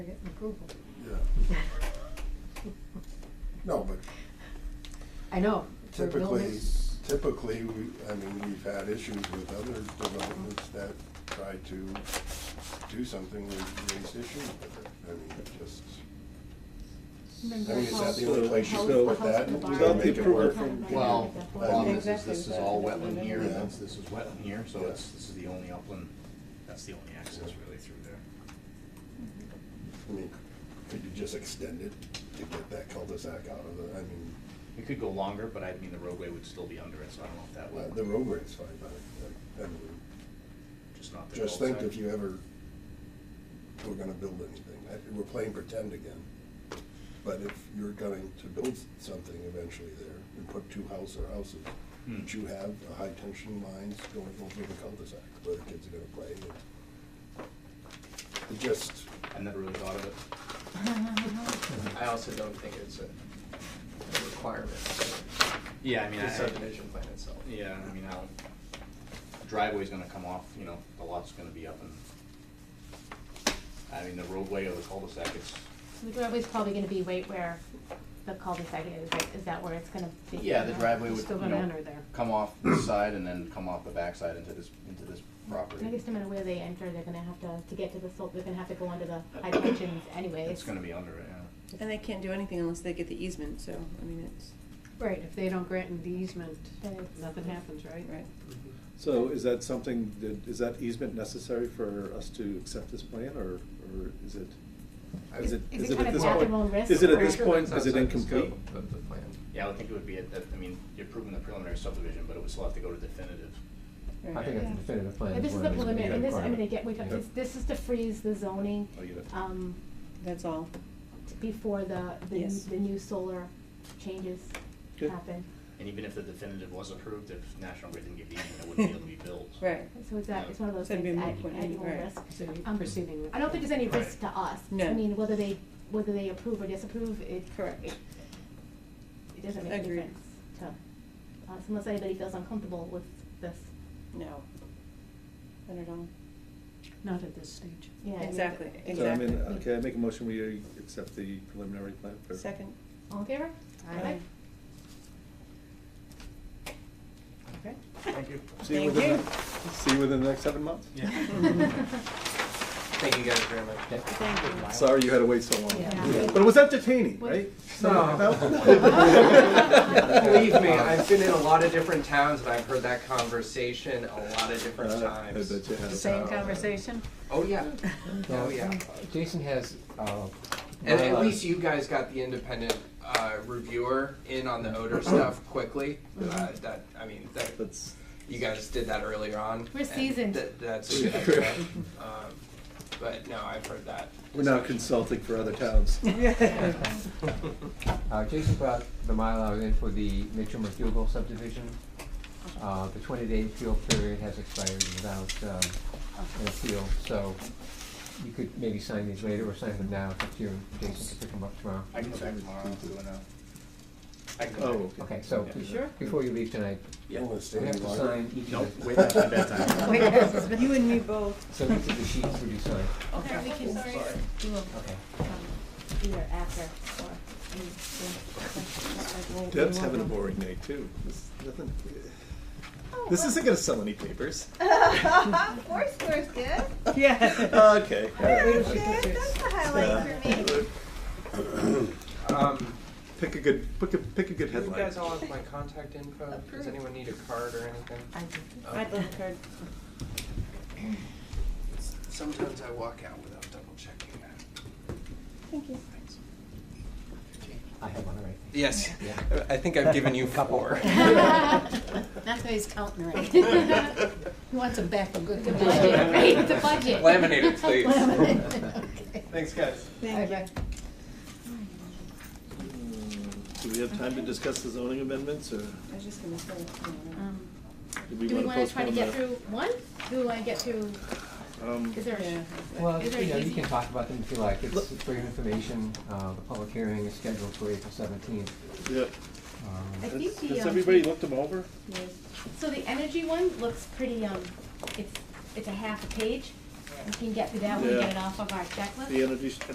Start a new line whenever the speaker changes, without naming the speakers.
They're getting approval.
Yeah, no, but
I know. they're
typically,
building-
typically, we, I mean, we've had issues with other developments that try to do something, we raised issues with it, I mean, it just,
Remember
I mean, is that the
how-
only place you
how-
could
how
put that?
the
to
barn-
Without the
make it
approval
work?
from-
Well, um, the
Well,
problem is, is
exactly,
this is
so
all
that's what
wetland
we
here,
do.
and that's, this is wetland here, so
Yeah.
it's, this is the only upland, that's the only access really through there.
I mean, could you just extend it to get that cul-de-sac out of the, I mean,
It could go longer, but I mean, the roadway would still be under it, so I don't know if that
well,
would,
the roadway's fine, but, I mean,
just not the
just think
cul-de-sac.
if you ever were gonna build anything, I- we're playing pretend again. But if you're going to build something eventually there and put two house or houses,
Hmm.
But you have the high tension lines going over the cul-de-sac where the kids are gonna play. and It just,
I never really thought of it.
I also don't think it's a a requirement for
Yeah, I mean,
the
I,
subdivision plan itself.
yeah, I mean, I don't, driveway's gonna come off, you know, the lot's gonna be up and, I mean, the roadway or the cul-de-sac, it's,
So the driveway's probably gonna be right where the cul-de-sac is, right? Is that where it's gonna be?
yeah, the driveway
You're
would,
still
you
gonna
know,
enter there.
come off this side and then come off the backside into this, into this property.
I guess no matter where they enter, they're gonna have to, to get to the slope, they're gonna have to go under the high tensions anyways.
It's gonna be under it, yeah.
And they can't do anything unless they get the easement, so, I mean, it's,
Right, if they don't grant an easement,
Then it's-
nothing happens, right?
right.
So is that something, that- is that easement necessary for us to accept this plan, or, or is it, is it,
Is
is
it
it
kind
at
of
this
at
point?
their own risk?
Is it at
Pretty
this
sure
point, is it incomplete?
Of the plan.
Yeah, I would think it would be, at the- I mean, you're approving the preliminary subdivision, but it would still have to go to definitive.
I think
Yeah.
it's a definitive plan.
But this is
one
the
of these
preliminary, and this, I mean,
requirements.
again, we, got- this, this is to freeze the zoning,
Oh, you got-
um,
That's all.
t- before the, the, new-
Yes.
the new solar changes
Good.
happen.
And even if the definitive was approved, if National Grid didn't give you, it wouldn't be able to be built.
Right.
So it's that, it's one of those
So it'd
things
be a
at,
moot point,
at your
right.
risk.
So you're
Um,
proceeding with.
I don't think there's any
Right.
risk to us. I
No.
mean, whether they, whether they approve or disapprove, it.
Correct.
It it doesn't make a
Agreed.
difference to us unless anybody feels uncomfortable with this.
No. Not at all.
Not at this stage.
Yeah. I mean,
Exactly,
it-
So I mean, uh,
Exactly.
okay, I make a motion, we accept the preliminary plan for.
Second.
All in favor?
Aye.
Okay.
Thank you.
See you
Thank
within,
you.
the- see you within the next seven months?
Thank you guys very much.
Thank you.
Sorry you had to wait so long.
Yeah.
But it was entertaining,
What-
right?
No.
No?
Believe me, I've been in a lot of different towns and I've heard that conversation a lot of different
Uh, I
times.
bet you have.
Same conversation? Oh, yeah. Oh, yeah.
Jason has, uh.
And at
bylaws.
least you guys got the independent uh, reviewer in on the odor stuff quickly. Uh, That, I mean, that,
That's,
you guys did that earlier on.
We're
and
seasoned.
that- That's a good idea. Um, But no, I've heard that.
we're now consulting for other towns.
Uh, Jason brought the Mylar in for the Mitchell McDougal subdivision. Uh, the twenty-day appeal period has expired without, um, an appeal, so you could maybe sign these later or sign them now, it's up to you, and Jason can pick them up tomorrow.
I can go back tomorrow, I'm doing a. I can
Oh,
go back.
okay.
Okay, so,
Yeah.
be-
Sure.
before you leave tonight,
you
Yeah.
wanna stay
you have to
longer?
sign each
Nope,
of the.
wait, that's my bedtime.
You and me both.
So these are the sheets we do sign,
Okay, we can do them
okay.
either after or. in- in-
Deb's having a boring night too. This, nothing,
Oh,
this isn't gonna sell any papers.
well, Four scores good.
Okay.
Very good. That's the highlight for me.
Um,
Pick a good, pick a, pick a good
Do you
headline.
guys all have my contact info? Does
Approved.
anyone need a card or anything?
I
I'd love a card.
Sometimes I walk out without double checking that.
Thank you.
I have one already.
Yes,
Yeah.
I think I've given you
Couple.
four.
That's why he's counting right. He wants them back for good.
The budget, right, it's a budget.
Laminated, please.
Okay.
Thanks, guys.
Thank you.
Do we have time to discuss the zoning amendments, or
I was just gonna say. you know,
Um,
do we
Do we
wanna
wanna try to
postpone
get
that?
through one? Do we wanna get through,
Um,
is there a?
Yeah.
Well,
Is there
you know,
an
you
easy-
can talk about them if you like, it's
Look-
it's for your information, uh, the public hearing is scheduled for April seventeenth.
yeah.
I
Has-
think the,
Has
um,
everybody looked them over?
Yes.
So the energy one looks pretty, um, it's, it's a half a page. We can get through that one,
Yeah.
get it off of our checklist.
The energy,